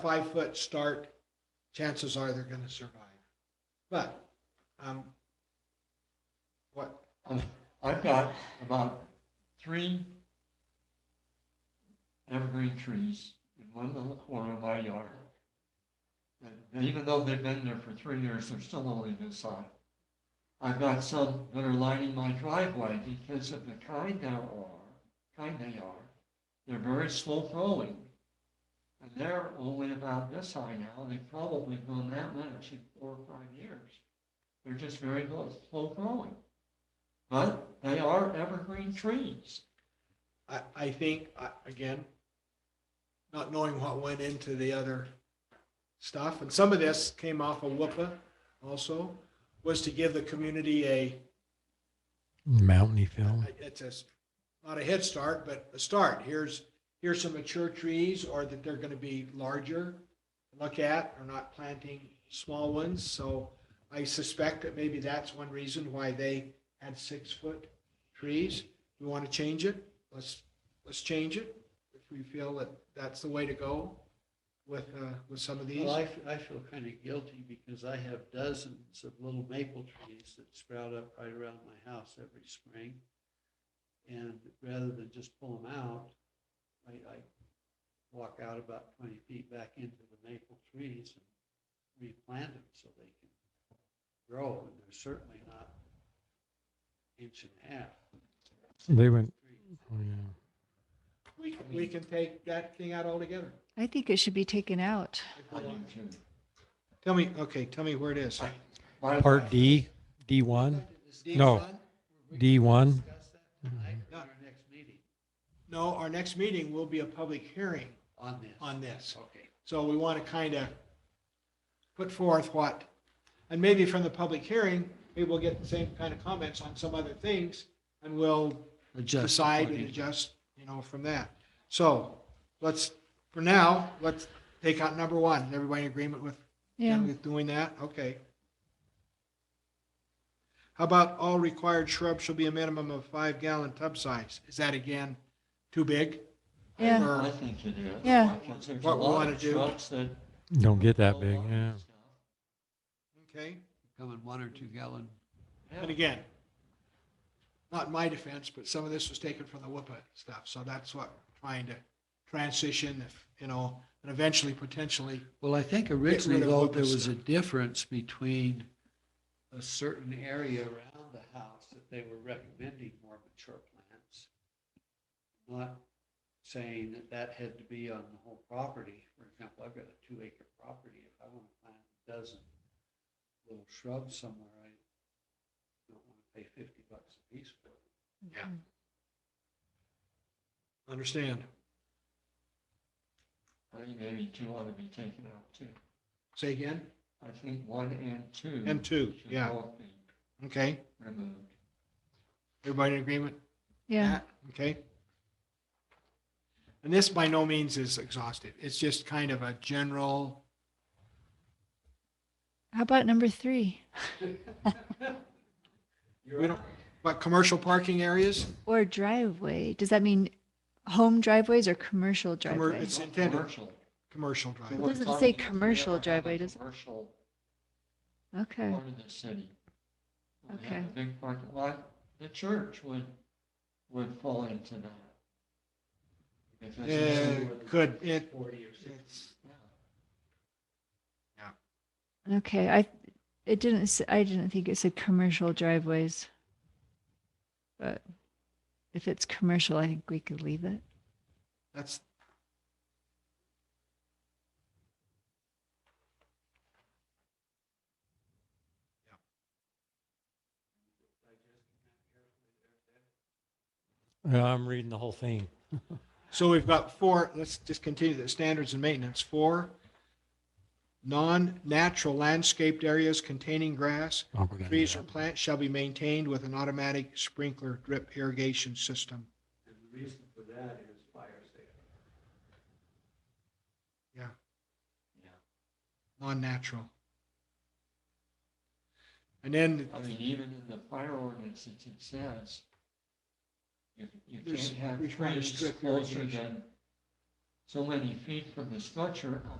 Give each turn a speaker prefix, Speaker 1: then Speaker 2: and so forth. Speaker 1: five foot start, chances are they're going to survive. But um, what,
Speaker 2: Um, I've got about three evergreen trees in one little corner of my yard. And even though they've been there for three years, they're still only this high. I've got some that are lining my driveway because of the kind they are, kind they are. They're very slow growing. And they're only about this high now. They've probably grown that much in four or five years. They're just very low, slow growing. But they are evergreen trees.
Speaker 1: I, I think, I- again, not knowing what went into the other stuff, and some of this came off of WUPA also, was to give the community a,
Speaker 3: Mountainy film.
Speaker 1: it's a, s- not a head start, but a start. Here's, here's some mature trees, or that they're going to be larger, to look at, or not planting small ones. So I suspect that maybe that's one reason why they had six-foot trees. We want to change it, let's, let's change it, if we feel that that's the way to go with, uh, with some of these.
Speaker 4: Well, I, f- I feel kind of guilty because I have dozens of little maple trees that sprout up right around my house every spring. And rather than just pull them out, I, I walk out about twenty feet back into the maple trees and replant them so they can grow. And they're certainly not inch and a half
Speaker 3: They went.
Speaker 4: trees.
Speaker 3: Oh, yeah.
Speaker 1: We, we can take that thing out altogether.
Speaker 5: I think it should be taken out.
Speaker 1: if we
Speaker 2: I do
Speaker 1: want.
Speaker 2: too.
Speaker 1: Tell me, okay, tell me where it is.
Speaker 2: My-
Speaker 3: Part D, D1,
Speaker 4: Steve,
Speaker 3: No.
Speaker 4: son, we can
Speaker 3: D1.
Speaker 4: Discuss that
Speaker 1: Mm-hmm.
Speaker 4: tonight or our next meeting
Speaker 1: No, our next meeting will be a public hearing
Speaker 4: on this.
Speaker 1: on this.
Speaker 4: Okay.
Speaker 1: So we want to kind of put forth what, and maybe from the public hearing, maybe we'll get the same kind of comments on some other things, and we'll decide and adjust, you know, from that. So let's, for now, let's take out number one. Is Everybody in agreement with
Speaker 5: Yeah.
Speaker 1: with doing that? Okay. How about all required shrubs shall be a minimum of five gallon tub size? Is that again too big?
Speaker 5: Yeah.
Speaker 1: Or-
Speaker 2: I think it is.
Speaker 5: Yeah.
Speaker 2: Because there's a
Speaker 1: What we
Speaker 2: lot
Speaker 1: wanna
Speaker 2: of
Speaker 1: do.
Speaker 2: trucks that
Speaker 3: Don't get that
Speaker 2: go
Speaker 3: big.
Speaker 2: along
Speaker 3: Yeah.
Speaker 2: and stuff.
Speaker 1: Okay,
Speaker 4: Come in one or two
Speaker 1: Mm-hmm.
Speaker 4: gallon
Speaker 1: and again, not in my defense, but some of this was taken from the WIPA stuff, so that's what we're trying to transition, if, you know, and eventually potentially,
Speaker 4: Well, I think originally
Speaker 1: rid of
Speaker 4: though,
Speaker 1: what
Speaker 4: there
Speaker 1: was
Speaker 4: was a
Speaker 1: there.
Speaker 4: difference between a certain area around the house that they were recommending more mature plants. Not saying that that had to be on the whole property. For example, I've got a two acre property. If I want to plant a dozen little shrubs somewhere, I don't want to pay fifty bucks a piece for it.
Speaker 1: understand,
Speaker 2: I think maybe two ought to be taken out too.
Speaker 1: say again,
Speaker 2: I think one and two.
Speaker 1: And two,
Speaker 2: should
Speaker 1: yeah.
Speaker 2: both be
Speaker 1: okay?
Speaker 2: Removed.
Speaker 1: Everybody in agreement?
Speaker 5: Yeah.
Speaker 1: Matt? Okay. And this by no means is exhaustive, it's just kind of a general,
Speaker 5: How about number three?
Speaker 1: we don't, but commercial parking areas,
Speaker 5: Or driveway? Does that mean home driveways or commercial
Speaker 1: Commer-
Speaker 5: driveways?
Speaker 1: it's intended,
Speaker 2: Commercial.
Speaker 1: commercial drive.
Speaker 2: We were
Speaker 5: doesn't
Speaker 2: talking
Speaker 5: say
Speaker 2: if we ever
Speaker 5: commercial
Speaker 2: have a
Speaker 5: driveway, does it?
Speaker 2: Commercial
Speaker 5: Okay.
Speaker 2: part of the city. We have
Speaker 5: Okay.
Speaker 2: a big parking lot. The church would, would fall into that. Because it's-
Speaker 1: Yeah, could, it,
Speaker 4: Forty or sixty.
Speaker 1: it's,
Speaker 2: yeah.
Speaker 5: Okay. I, it didn't, s- I didn't think it said commercial driveways. But if it's commercial, I think we could leave it.
Speaker 1: that's,
Speaker 3: Yeah, I'm reading the whole thing.
Speaker 1: So we've got four, let's just continue the standards and maintenance. Four, non-natural landscaped areas containing grass,
Speaker 3: Oh, we're gonna
Speaker 1: trees
Speaker 3: do
Speaker 1: or plants shall be maintained with an automatic sprinkler drip irrigation system.
Speaker 4: And the reason for that is fire safety.
Speaker 1: Non-natural. And then,
Speaker 2: I mean, even in the fire ordinance, it it says you, you
Speaker 1: There's-
Speaker 2: can't have
Speaker 1: we're trying to
Speaker 2: trees
Speaker 1: strip
Speaker 2: closer
Speaker 1: irrigation.
Speaker 2: than so many feet from the structure